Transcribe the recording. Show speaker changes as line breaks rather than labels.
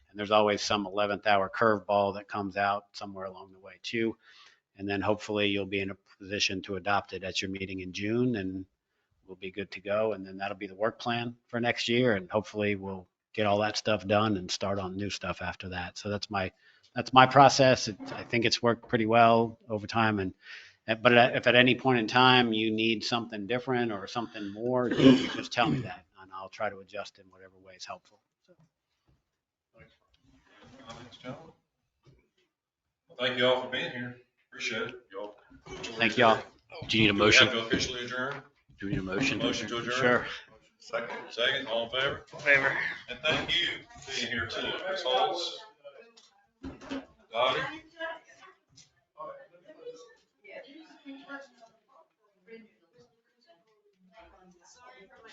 And there's always some 11th hour curveball that comes out somewhere along the way too. And then hopefully you'll be in a position to adopt it at your meeting in June and we'll be good to go. And then that'll be the work plan for next year. And hopefully we'll get all that stuff done and start on new stuff after that. So that's my, that's my process. It- I think it's worked pretty well over time and uh, But at- if at any point in time you need something different or something more, you just tell me that and I'll try to adjust in whatever way is helpful.
Comments, gentlemen? Well, Thank you all for being here. Appreciate it. Y'all.
Thank y'all.
Do you need a
Do we have
motion?
to officially adjourn?
Do we need a motion?
Motion to adjourn?
Sure.
Second. Second, all in favor?
Favor.
And thank you for being here too. Ms. Holmes. Dottie,